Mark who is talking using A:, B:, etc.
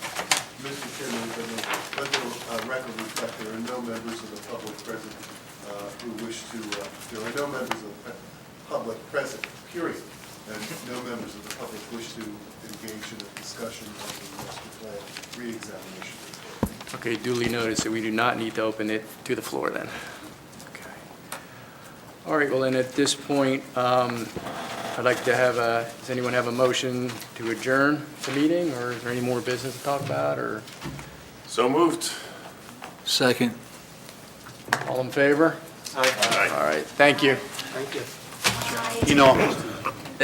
A: uh, there are no members of the public present uh, who wish to, uh, there are no members of the pe- public present, period, and no members of the public wish to engage in a discussion of the master plan reexamination.
B: Okay, duly noted, so we do not need to open it to the floor then. Okay. All right, well then, at this point, um, I'd like to have a, does anyone have a motion to adjourn the meeting, or is there any more business to talk about, or
C: So moved.
D: Second.
B: all in favor? All right, thank you.
E: Thank you.
C: You know,